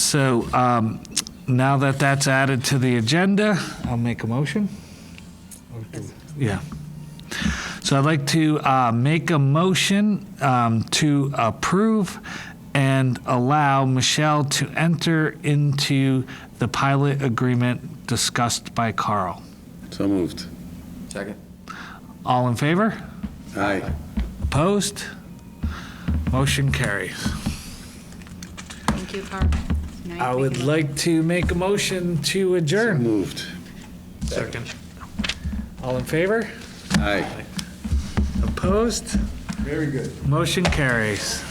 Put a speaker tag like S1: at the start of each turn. S1: So um, now that that's added to the agenda, I'll make a motion. Yeah. So I'd like to uh, make a motion um, to approve and allow Michelle to enter into the pilot agreement discussed by Carl.
S2: So moved.
S3: Second.
S1: All in favor?
S2: Aye.
S1: Opposed? Motion carries.
S4: Thank you, Carl. Now you
S1: I
S4: make
S1: would
S4: it.
S1: like to make a motion to
S2: So
S1: adjourn.
S2: Moved.
S1: All in favor?
S2: Aye.
S1: Opposed? Very good. Motion carries.